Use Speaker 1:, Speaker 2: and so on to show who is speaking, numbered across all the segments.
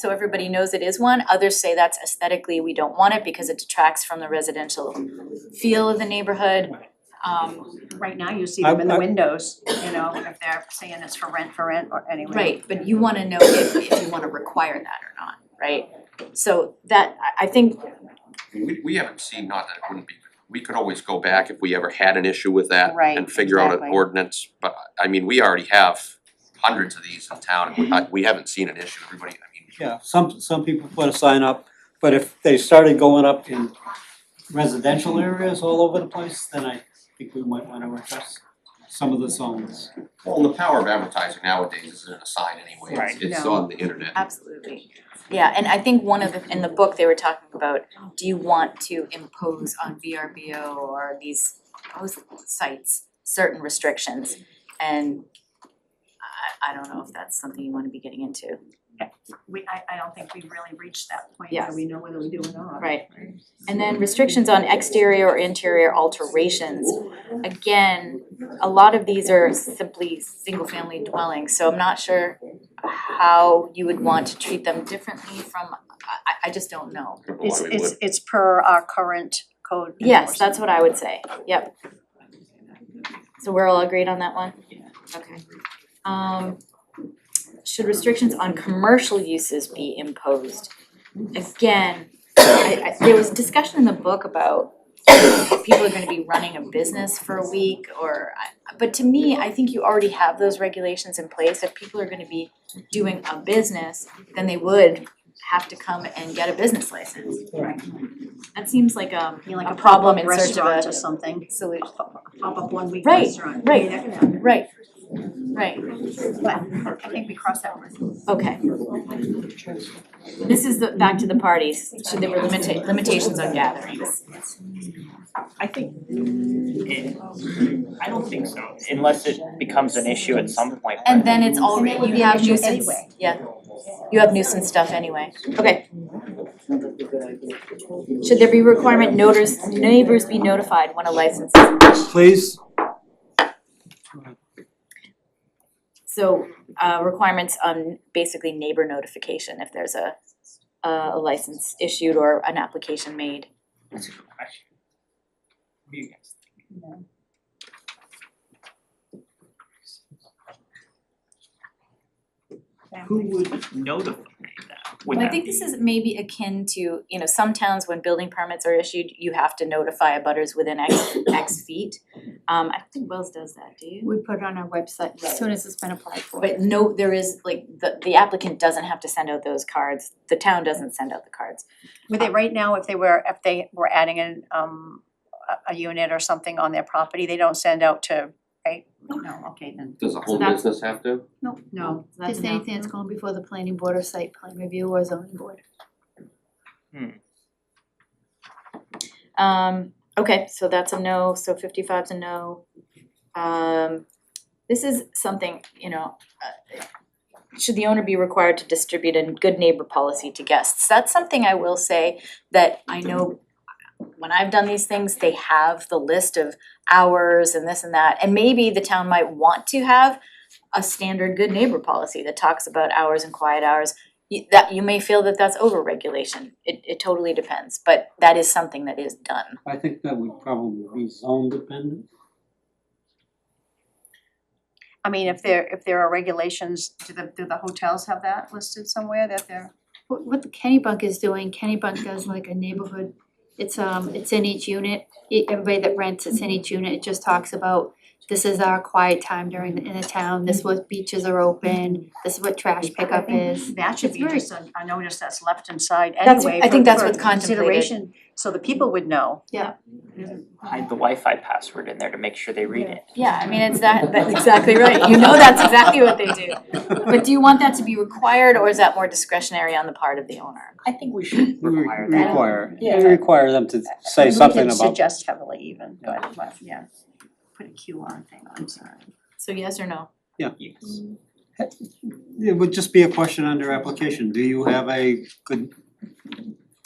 Speaker 1: so everybody knows it is one. Others say that's aesthetically, we don't want it because it detracts from the residential feel of the neighborhood. Um,
Speaker 2: Right now, you see
Speaker 3: I-
Speaker 2: them in the
Speaker 3: I-
Speaker 2: windows, you know, if they're saying it's for rent, for rent, or anyway.
Speaker 1: right, but you wanna know if if you wanna require that or not, right? So that, I I think,
Speaker 4: We we haven't seen, not that it wouldn't be, we could always go back if we ever had an issue with that
Speaker 2: Right,
Speaker 4: and figure out an
Speaker 2: exactly.
Speaker 4: ordinance, but I mean, we already have hundreds of these in town and we I we haven't seen an issue, everybody, I mean,
Speaker 3: Yeah, some, some people put a sign up, but if they started going up in residential areas all over the place, then I think we might wanna address some of the zones.
Speaker 4: well, the power of advertising nowadays isn't a sign anyway,
Speaker 3: Right.
Speaker 4: it's it's
Speaker 2: No.
Speaker 4: on the internet.
Speaker 1: absolutely. Yeah, and I think one of the, in the book, they were talking about, do you want to impose on VRBO or these host sites certain restrictions? And I I don't know if that's something you wanna be getting into.
Speaker 2: We, I, I don't think we really reached that point
Speaker 1: Yes.
Speaker 2: where we know whether we do or not.
Speaker 1: Right. And then restrictions on exterior or interior alterations. Again, a lot of these are simply single-family dwellings, so I'm not sure how you would want to treat them differently from, I- I, I just don't know.
Speaker 4: I don't know why
Speaker 2: It's,
Speaker 4: we
Speaker 2: it's,
Speaker 4: would.
Speaker 2: it's per our current code.
Speaker 1: Yes,
Speaker 2: enforcement.
Speaker 1: that's what I would say, yep. So we're all agreed on that one? Okay. Um, should restrictions on commercial uses be imposed? Again, I, I, there was discussion in the book about people are gonna be running a business for a week or, I- but to me, I think you already have those regulations in place. If people are gonna be doing a business, then they would have to come and get a business license.
Speaker 3: Right.
Speaker 1: That seems like um
Speaker 2: You know, like
Speaker 1: A
Speaker 2: a
Speaker 1: problem in
Speaker 2: problem
Speaker 1: search of
Speaker 2: restaurant
Speaker 1: a-
Speaker 2: or something,
Speaker 1: solution.
Speaker 2: pop up one week
Speaker 1: Right,
Speaker 2: restaurant, I mean,
Speaker 1: right.
Speaker 2: that can happen.
Speaker 1: Right, right,
Speaker 2: But I think we crossed that one.
Speaker 1: okay. This is the, back to the parties, so there were limita- limitations on gatherings.
Speaker 5: I think it, I don't think so, unless it becomes an issue at some point, but-
Speaker 1: And then it's already,
Speaker 2: And then
Speaker 1: you have
Speaker 2: we have
Speaker 1: nuisance,
Speaker 2: anyway.
Speaker 1: yeah, you have nuisance stuff anyway, okay. Should there be requirement noters, neighbors be notified when a license is
Speaker 3: Please,
Speaker 1: So uh requirements on basically neighbor notification if there's a a license issued or an application made.
Speaker 5: That's a good question. What do you guys think? Who would notify that? Would
Speaker 1: Well, I
Speaker 5: that
Speaker 1: think this
Speaker 5: be-
Speaker 1: is maybe akin to, you know, some towns when building permits are issued, you have to notify abutters within X X feet. Um I don't think Wells does that, do you?
Speaker 6: We put it on our website as soon as it's been applied for.
Speaker 1: But no, there is like the the applicant doesn't have to send out those cards, the town doesn't send out the cards.
Speaker 2: Were they, right now, if they were, if they were adding an, um, a, a unit or something on their property, they don't send out to, right? No, okay, then.
Speaker 4: Does a home
Speaker 1: that's-
Speaker 4: business have to?
Speaker 2: No. No.
Speaker 1: So that's
Speaker 6: Just
Speaker 1: a no.
Speaker 6: anything that's going before the planning board or site plan review or zoning board.
Speaker 1: Um, okay, so that's a no, so 55 is a no. Um, this is something, you know, uh, should the owner be required to distribute a good neighbor policy to guests? That's something I will say that I know when I've done these things, they have the list of hours and this and that. And maybe the town might want to have a standard good neighbor policy that talks about hours and quiet hours you that you may feel that that's over regulation, it it totally depends, but that is something that is done.
Speaker 3: I think that would probably be zone dependent.
Speaker 2: I mean, if there, if there are regulations, do the, do the hotels have that listed somewhere that they're?
Speaker 6: What what the Kenny Bunk is doing, Kenny Bunk does like a neighborhood, it's um, it's in each unit. E- Everybody that rents, it's in each unit, it just talks about this is our quiet time during the, in the town, this is what beaches are open, this is what trash pickup is.
Speaker 2: That should
Speaker 6: It's
Speaker 2: be
Speaker 6: very-
Speaker 2: just a, a notice that's left inside
Speaker 1: That's-
Speaker 2: anyway
Speaker 1: I think
Speaker 2: for-
Speaker 1: that's
Speaker 2: for
Speaker 1: what's contemplated.
Speaker 2: Consideration, so the people would know.
Speaker 5: Hide the Wi-Fi password in there to make sure they read it.
Speaker 1: Yeah, I mean, it's that, that's exactly right, you know that's exactly what they do. But do you want that to be required or is that more discretionary on the part of the owner?
Speaker 5: I think we should
Speaker 3: We
Speaker 5: require that.
Speaker 3: Require,
Speaker 5: Yeah.
Speaker 3: require them to say
Speaker 2: We
Speaker 3: something
Speaker 2: didn't
Speaker 3: about,
Speaker 2: suggest heavily even, but, but, yeah. Put a Q on thing, I'm sorry.
Speaker 1: So yes or no?
Speaker 5: Yes.
Speaker 3: it would just be a question under application, do you have a good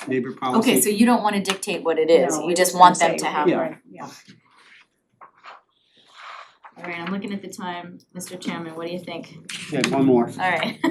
Speaker 3: neighbor policy?
Speaker 1: Okay, so you don't wanna dictate what it is,
Speaker 2: No,
Speaker 1: you
Speaker 2: we're
Speaker 1: just
Speaker 2: gonna
Speaker 1: want them
Speaker 2: say-
Speaker 1: to have.
Speaker 3: Yeah.
Speaker 2: right, yeah.
Speaker 1: Alright, I'm looking at the time, Mr. Chairman, what do you think?
Speaker 3: Okay, one more.
Speaker 1: Alright.